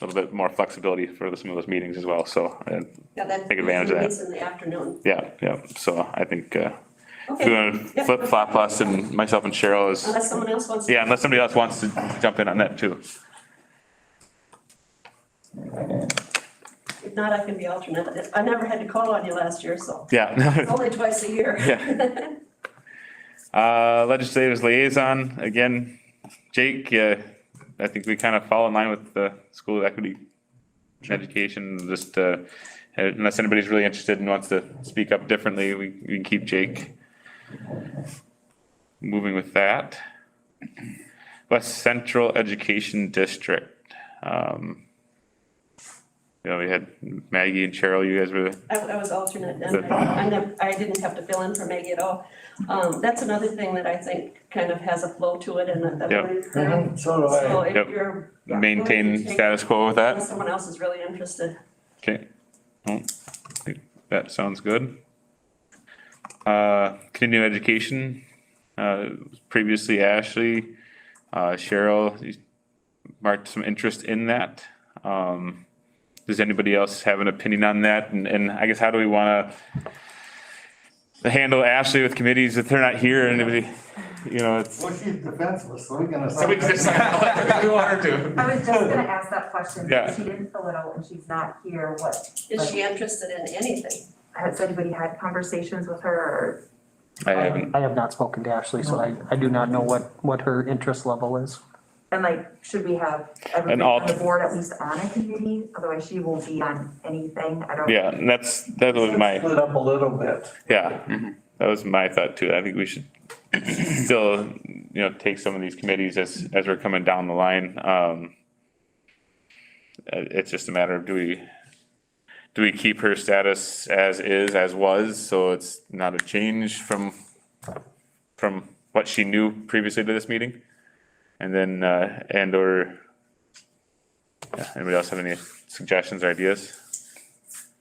a little bit more flexibility for some of those meetings as well, so, uh, Yeah, that. Take advantage of that. It's in the afternoon. yeah, yeah, so I think, uh, if you Okay, wanna flip flop us and myself and Cheryl is, unless someone else wants. to- yeah, unless somebody else wants to jump in on that too. If not, I can be alternate. I never had to call on you last year, so Yeah. only twice a year. Yeah. Uh, legislators liaison, again, Jake, uh, I think we kind of fall in line with the school equity and education, just, uh, unless anybody's really interested and wants to speak up differently, we, we can keep Jake. Moving with that. West Central Education District, um. You know, we had Maggie and Cheryl, you guys were, I, I was alternate and I, I nev- I didn't have to fill in for Maggie at all. Um, that's another thing that I think kind of has a flow to it and that- that. Yeah. we're- Mhm, So do So I. if Yep. you're. maintain status quo with that? Unless Someone else is really interested. Okay, well, I think that sounds good. Uh, continuing education, uh, previously Ashley, uh, Cheryl, you marked some interest in that. Um, does anybody else have an opinion on that? And, and I guess how do we wanna handle Ashley with committees if they're not here and anybody, you know, it's. Well, she's defenseless, so we can assign. Somebody just- We want her to. I was just gonna ask that question, Yeah. because she didn't fill it out and she's not here, what, Is she interested in anything? has anybody had conversations with her I haven't, I have not spoken to Ashley, so I, I do not know what, what her interest level is. or, and like, should we have everybody alt- on the board at least on a committee? Otherwise she won't be on anything, I don't. yeah, and that's, that was my. Split up a little bit. Yeah, that was my thought too. I think we should still, you know, take some of these committees as, as we're coming down the line. Um, it- it's just a matter of do we, do we keep her status as is, as was? So it's not a change from, from what she knew previously to this meeting? And then, uh, and or, yeah, anybody else have any suggestions or ideas?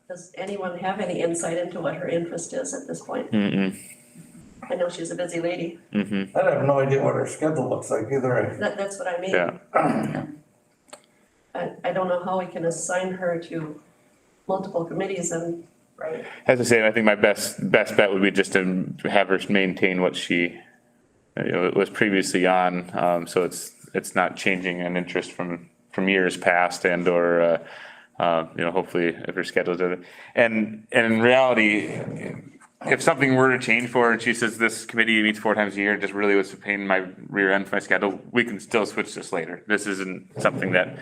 Does anyone have any insight into what her interest is at this point? Mm-mm, I know she's a busy lady. mm-hmm. I have no idea what her schedule looks like either. That, that's what I mean. Yeah. I, I don't know how we can assign her to multiple committees and, right? As I say, I think my best, best bet would be just to have her maintain what she uh, you know, was previously on. Um, so it's, it's not changing an interest from, from years past and or, uh, uh, you know, hopefully if her schedule's other. And, and in reality, if something were to change for her and she says this committee meets four times a year, just really was a pain in my rear end for my schedule, we can still switch this later. This isn't something that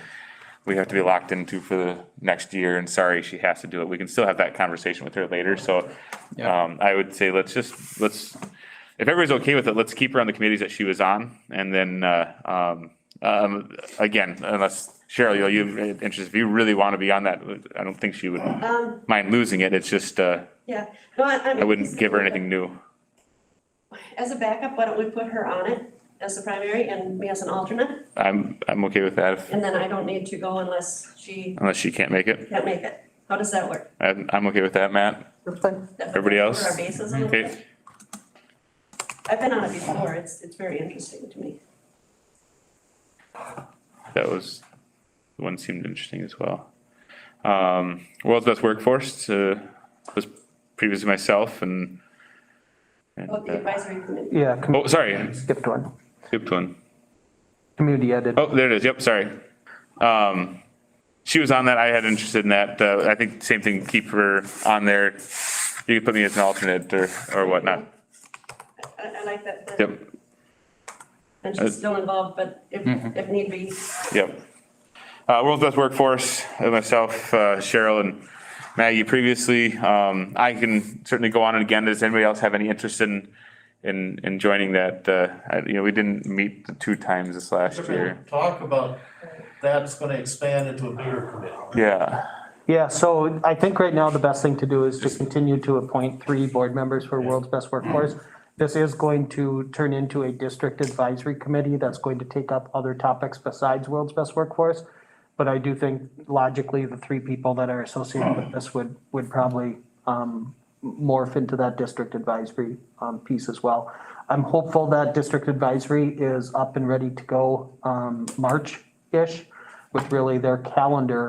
we have to be locked into for the next year and sorry, she has to do it. We can still have that conversation with her later, so. Um, I would say let's just, let's, if everybody's okay with it, let's keep her on the committees that she was on and then, uh, um, um, again, unless Cheryl, you, you interested, if you really want to be on that, I don't think she would Um, mind losing it. It's just, uh, yeah, no, I, I'm. I wouldn't give her anything new. As a backup, why don't we put her on it as the primary and me as an alternate? I'm, I'm okay with that if- And then I don't need to go unless she unless she can't make it. can't make it. How does that work? I'm, I'm okay with that, Matt. That- Everybody else? cover Our bases a little bit. Okay, I've been on it before. It's, it's very interesting to me. that was, the one seemed interesting as well. Um, World's Best Workforce, uh, was previously myself and. and, Oh, the uh, advisory committee. Yeah, com- Oh, sorry, skipped one. skipped one. Community edit. Oh, there it is. Yep, sorry. Um, she was on that. I had interested in that. Uh, I think same thing, keep her on there. You could put me as an alternate or, or whatnot. I, I like that. plan. Yep, Uh, And she's still involved, but if, if need be, Yep. Uh, World's Best Workforce, uh, myself, uh, Cheryl and Maggie previously. Um, I can certainly go on it again. Does anybody else have any interest in, in, in joining that? Uh, I- you know, we didn't meet the two times this last year. Talk about, that's gonna expand into a bigger committee. Yeah, Yeah, so I think right now the best thing to do is to continue to appoint three board members for World's Best Workforce. This is going to turn into a district advisory committee that's going to take up other topics besides World's Best Workforce. But I do think logically, the three people that are associated with this would, would probably um, morph into that district advisory um, piece as well. I'm hopeful that district advisory is up and ready to go um, March-ish. with really their calendar